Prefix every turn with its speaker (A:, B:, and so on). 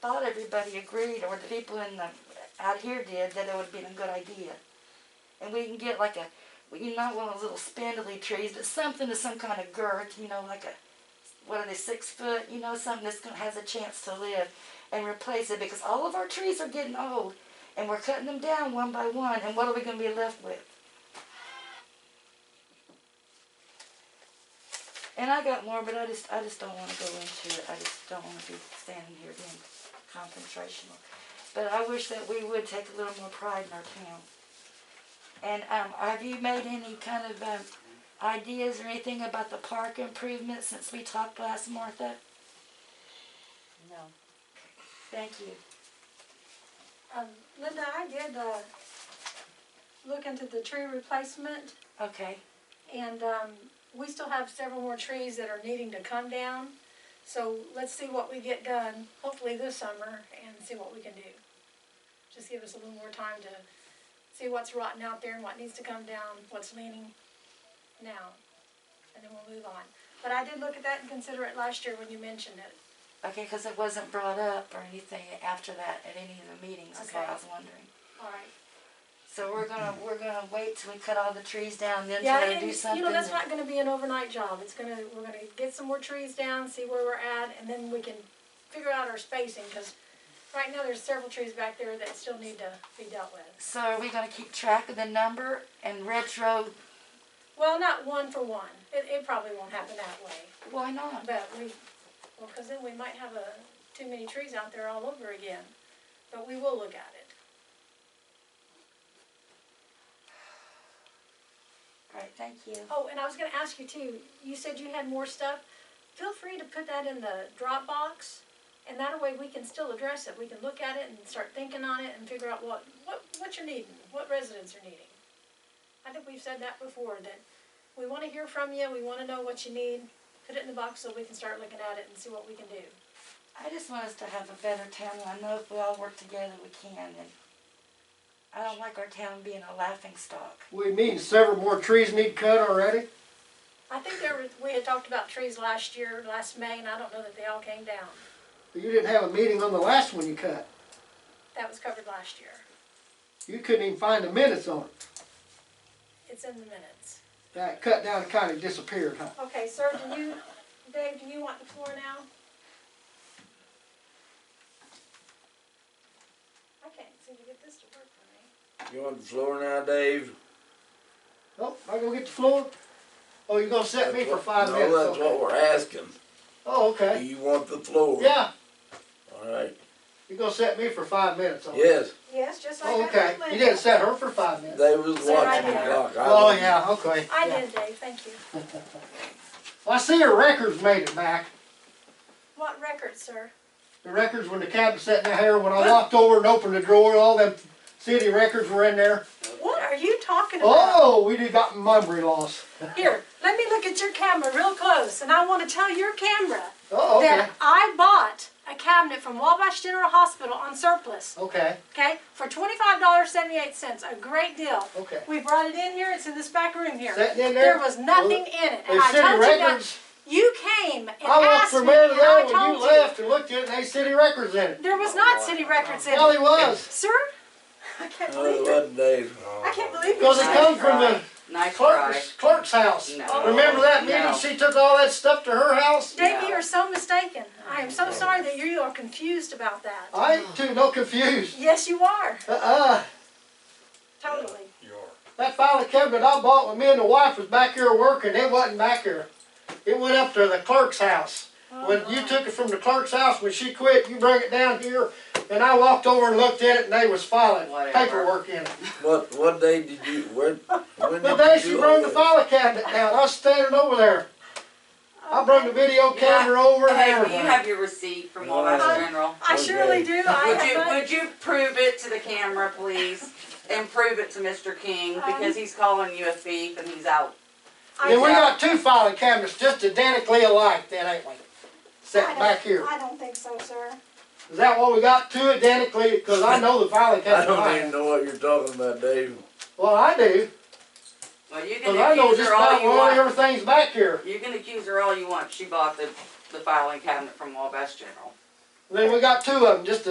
A: thought everybody agreed, or the people in the, out here did, that it would have been a good idea. And we can get like a, well, you know, not one of those little spindly trees, but something of some kind of girth, you know, like a, what are they, six foot, you know, something that's gonna, has a chance to live and replace it because all of our trees are getting old and we're cutting them down one by one and what are we gonna be left with? And I got more, but I just I just don't want to go into it. I just don't want to be standing here being confrontational. But I wish that we would take a little more pride in our town. And um, have you made any kind of um, ideas or anything about the park improvement since we talked last, Martha?
B: No.
A: Thank you.
C: Um, Linda, I did, uh, look into the tree replacement
A: Okay.
C: and, um, we still have several more trees that are needing to come down. So let's see what we get done, hopefully this summer, and see what we can do. Just give us a little more time to see what's rotten out there and what needs to come down, what's leaning now. And then we'll move on. But I did look at that and consider it last year when you mentioned it.
A: Okay, because it wasn't brought up or anything after that at any of the meetings, is what I
C: Okay.
A: was wondering.
C: All right.
A: So we're gonna we're gonna wait till we cut all the trees down, then
C: Yeah,
A: try to
C: and
A: do something.
C: you know that's
A: that-
C: not going to be an overnight job. It's going to we're going to get some more trees down, see where we're at, and then we can figure out our spacing because right now there's several trees back there that still need to be dealt with.
A: So are we gonna keep track of the number and retro?
C: Well, not one for one. It, it probably won't happen that way,
A: Why not?
C: but we well because then we might have a too many trees out there all over again. But we will look at it.
A: Right. Thank you.
C: Oh, and I was going to ask you too. You said you had more stuff. Feel free to put that in the Dropbox, and that way we can still address it. We can look at it and start thinking on it and figure out what what what you're needing, what residents are needing. I think we've said that before. That we want to hear from you. We want to know what you need. Put it in the box so we can start looking at it and see what we can do.
A: I just want us to have a better town, and I know if we all work together, we can. And I don't like our town being a laughing stock.
D: What do you mean, several more trees need cut already?
C: I think there was, we had talked about trees last year, last May, and I don't know that they all came down.
D: You didn't have a meeting on the last one you cut.
C: That was covered last year.
D: You couldn't even find the minutes on it.
C: It's in the minutes.
D: That cut down kind of disappeared, huh?
C: Okay, sir, do you, Dave, do you want the floor now? I can't seem to get this to work for me.
E: You want the floor now, Dave?
D: Oh, I gonna get the floor? Oh, you gonna set me
E: That's
D: for
E: what-
D: five
E: no,
D: minutes?
E: that's
D: okay.
E: what we're asking.
D: Oh,
E: Do
D: okay.
E: you want the floor?
D: Yeah,
E: All right.
D: you gonna set me for five minutes? okay.
E: Yes,
C: Yes, just
D: Oh,
C: like I
D: okay.
C: did
D: You
C: Linda.
D: didn't set her for five minutes.
E: they was
C: Sit right
E: watching the
C: there.
E: clock. I
D: Oh,
E: wasn't.
D: yeah, okay.
C: I
D: yeah.
C: did, Dave, thank you.
D: Well, I see her records made it back.
C: What record, sir?
D: The records when the cat was sitting there, when I walked over and opened the drawer, all them city records were in there.
C: What are you talking about?
D: Oh, we did got memory loss.
C: Here, let me look at your camera real close, and I wanna tell your camera
D: Oh, okay,
C: that I bought a cabinet from Wabash General Hospital on surplus.
D: okay,
C: Okay, for twenty-five dollars seventy-eight cents, a great deal.
D: Okay.
C: We brought it in here. It's in this back room here.
D: Sitting in there?
C: There was nothing in it.
D: They
C: And I
D: city
C: told you that
D: records.
C: you came and
D: I walked
C: asked
D: for
C: me,
D: a
C: and
D: minute
C: I
D: there when you
C: told you
D: left and looked at it, and they city records in it.
C: there was not
B: Oh,
C: city records in
D: Well, he
C: it,
D: was,
C: sir. I can't
E: No, it
C: believe it.
E: wasn't Dave.
C: I can't believe
D: cause it
C: it.
D: come from the
B: Nice try.
D: clerk's, clerk's house.
B: No.
D: Remember that
B: No.
D: meeting? She took all that stuff to her house?
C: Davey, you're so mistaken. I am so sorry that you are confused about that.
D: I ain't too, no confused.
C: Yes, you are.
D: Uh-uh,
C: Totally.
D: that filing cabinet I bought when me and the wife was back here working, it wasn't back here. It went up to the clerk's house. When you took it from the clerk's house, when she quit, you bring it down here, and I walked over and looked at it, and they was filing
B: Whatever.
D: paperwork in it.
E: What what day did you where when
D: The
E: did
D: day
E: you
D: she
E: do
D: brought
E: all
D: the
E: that?
D: file cabinet down, I was standing over there. I brought the video camera over and
B: Hey, do you
D: everything.
B: have your receipt from Wabash General?
C: I
E: Okay.
C: surely do. I
B: Would
C: have
B: you,
C: not-
B: would you prove it to the camera, please? And prove it to Mr. King, because he's calling you a thief and he's out.
C: I
D: Then we
C: don't-
D: got two filing cabinets just identically alike then, ain't we?
C: I
D: Sitting
C: don't-
D: back here.
C: I don't think so, sir.
D: Is that what we got, two identically, cause I know the filing
E: I
D: cabinet I
E: don't even
D: have.
E: know what you're talking about, Dave.
D: Well, I do,
B: Well, you
D: cause I
B: can
D: know
B: accuse
D: just
B: her all
D: about
B: you
D: where
B: want.
D: everything's back here.
B: You can accuse her all you want. She bought the, the filing cabinet from Wabash General.
D: Then we got two of them, just to